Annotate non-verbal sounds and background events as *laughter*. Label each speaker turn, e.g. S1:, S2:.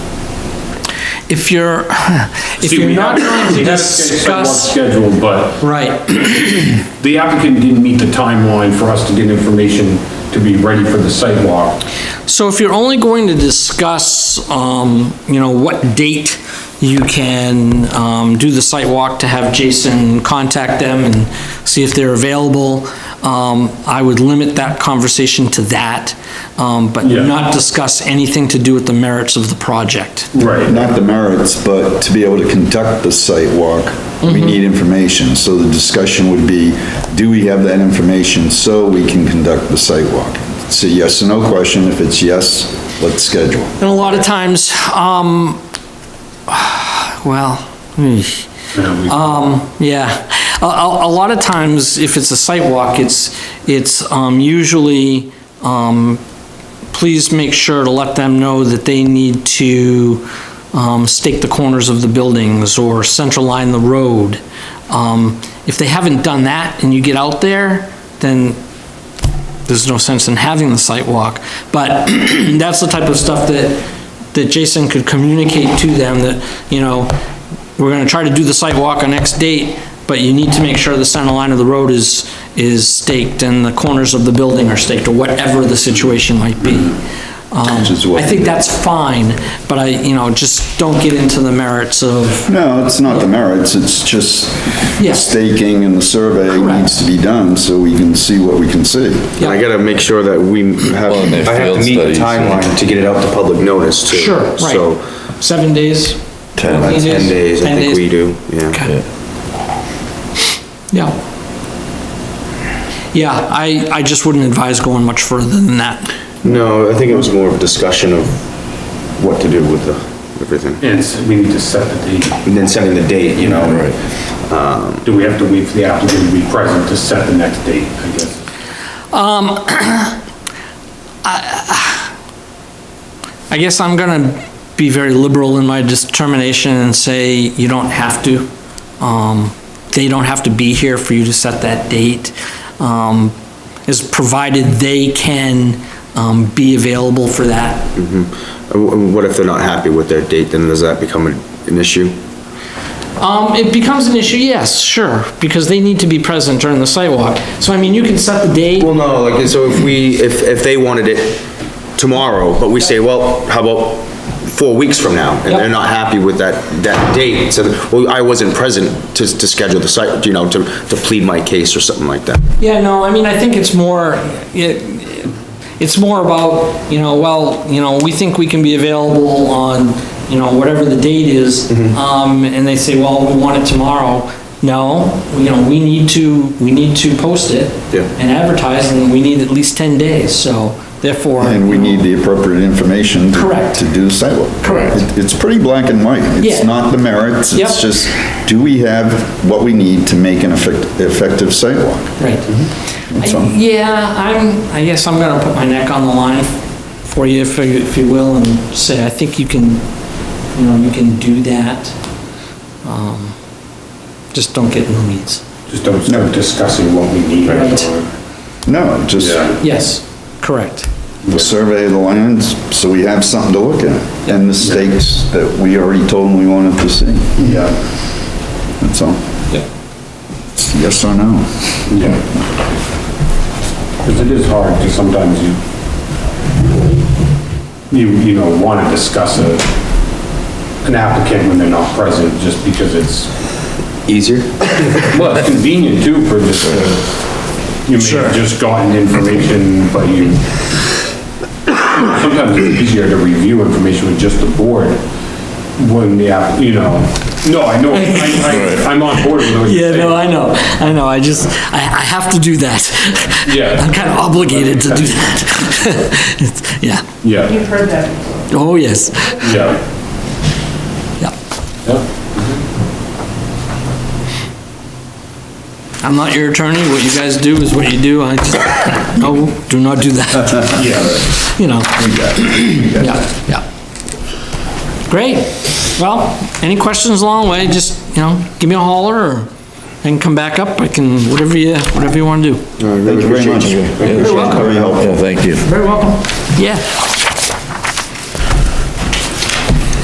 S1: if
S2: *laughs*
S1: you're, if
S2: See,
S1: you're
S2: we
S1: not
S2: have-
S1: going to
S2: we have scheduled
S1: discuss,
S2: Scheduled, but
S1: right,
S2: the applicant didn't meet the timeline for us to get information to be ready for the site walk.
S1: so if you're only going to discuss, um, you know, what date you can, um, do the site walk to have Jason contact them and see if they're available, um, I would limit that conversation to that, um, but
S2: Yeah.
S1: not discuss anything to do with the merits of the project.
S2: Right.
S3: Not the merits, but to be able to conduct the site walk, we need information. So the discussion would be, do we have that information so we can conduct the site walk? It's a yes or no question. If it's yes, let's schedule.
S1: And a lot of times, um, *sighs* well, hmm. eesh. um, yeah. A, a, a lot of times, if it's a site walk, it's, it's, um, usually, um, please make sure to let them know that they need to, um, stake the corners of the buildings or central line the road. Um, if they haven't done that and you get out there, then there's no sense in having the site walk. But *clears throat* that's the type of stuff that, that Jason could communicate to them that, you know, we're gonna try to do the site walk on X date, but you need to make sure the center line of the road is, is staked and the corners of the building are staked or whatever the situation might be. Um,
S3: Which is what-
S1: I think that's fine, but I, you know, just don't get into the merits of,
S3: No, it's not the merits, it's just
S1: Yeah.
S3: the staking and the survey needs to be done so we can see what we can see.
S4: And I gotta make sure that we have,
S5: Well, and their
S4: I have to
S5: field
S4: meet the
S5: studies.
S4: timeline to get it out to public notice too.
S1: sure,
S4: So,
S1: right. Seven days?
S5: Ten.
S4: about
S1: Fourteen
S4: ten days, I
S1: 10
S4: think
S1: days?
S4: we do, yeah.
S1: Okay. Yeah. Yeah, I, I just wouldn't advise going much further than that.
S4: No, I think it was more of a discussion of what to do with the, everything.
S2: It's, we need to set the date.
S4: And then setting the date, you know?
S2: Do we have to wait for the applicant to be present to set the next date, I guess?
S1: I guess I'm gonna be very liberal in my determination and say you don't have to. Um, they don't have to be here for you to set that date. Um, is provided they can, um, be available for that.
S4: Uh, wh- What if they're not happy with their date, then does that become an an issue?
S1: Um, it becomes an issue, yes, sure, because they need to be present during the sidewalk. So I mean, you can set the date.
S4: Well, no, like, so if we, if, if they wanted it tomorrow, but we say, well, how about four weeks from now? And
S1: Yep.
S4: they're not happy with that, that date, so, well, I wasn't present to, to schedule the site, you know, to, to plead my case or something like that.
S1: Yeah, no, I mean, I think it's more, it, it's more about, you know, well, you know, we think we can be available on, you know, whatever the date is.
S3: Mm-hmm.
S1: Um, and they say, well, we want it tomorrow. No, you know, we need to, we need to post it.
S4: Yeah.
S1: And advertise, and we need at least ten days, so therefore.
S3: And we need the appropriate information. to-
S1: Correct.
S3: To do the site walk.
S1: Correct.
S3: It- It's pretty black and white. It's
S1: Yeah.
S3: not the merits,
S1: Yep.
S3: it's just, do we have what we need to make an effect- effective site walk?
S1: Right.
S3: Mm-hmm. That's all.
S1: I- Yeah, I'm, I guess I'm gonna put my neck on the line for you, if you, if you will, and say, I think you can, you know, you can do that. Um, Just don't get in the weeds.
S2: Just don't start discussing what we need.
S1: Right.
S3: No, just
S2: Yeah.
S1: Yes, correct.
S3: the survey of the lands, so we have something to look at. And the stakes that we already told them we wanted to see. Yeah. That's all.
S1: Yep.
S3: It's Yes or no?
S2: Because it is hard to sometimes you, you, you know, want to discuss a, an applicant when they're not present, just because it's,
S4: Easier?
S2: well, it's convenient too for just, uh, you may have just gotten information, but you, sometimes it's easier to review information with just the board when the, app- you know, no, I
S1: *laughs*
S2: know, I, I, I'm on board with those.
S1: Yeah, no, I know, I know, I just, I, I have to do that.
S2: Yeah.
S1: *laughs* I'm kind of obligated to do that. *laughs* It's- Yeah,
S2: Yeah,
S6: You've heard that before.
S1: oh, yes,
S2: yeah,
S1: yeah.
S2: yeah.
S1: I'm not your attorney, what you guys do is what you do, I just, no, do not do
S3: *laughs*
S1: that.
S2: Yeah.
S1: you know. Yeah, yeah. Great. Well, any questions along the way, just, you know, give me a holler or I can come back up. I can, whatever you, whatever you want to do.
S3: Thank you very much.
S5: You're
S1: welcome.
S3: Very helpful.
S5: Yeah, thank you.
S1: Very welcome. Yeah.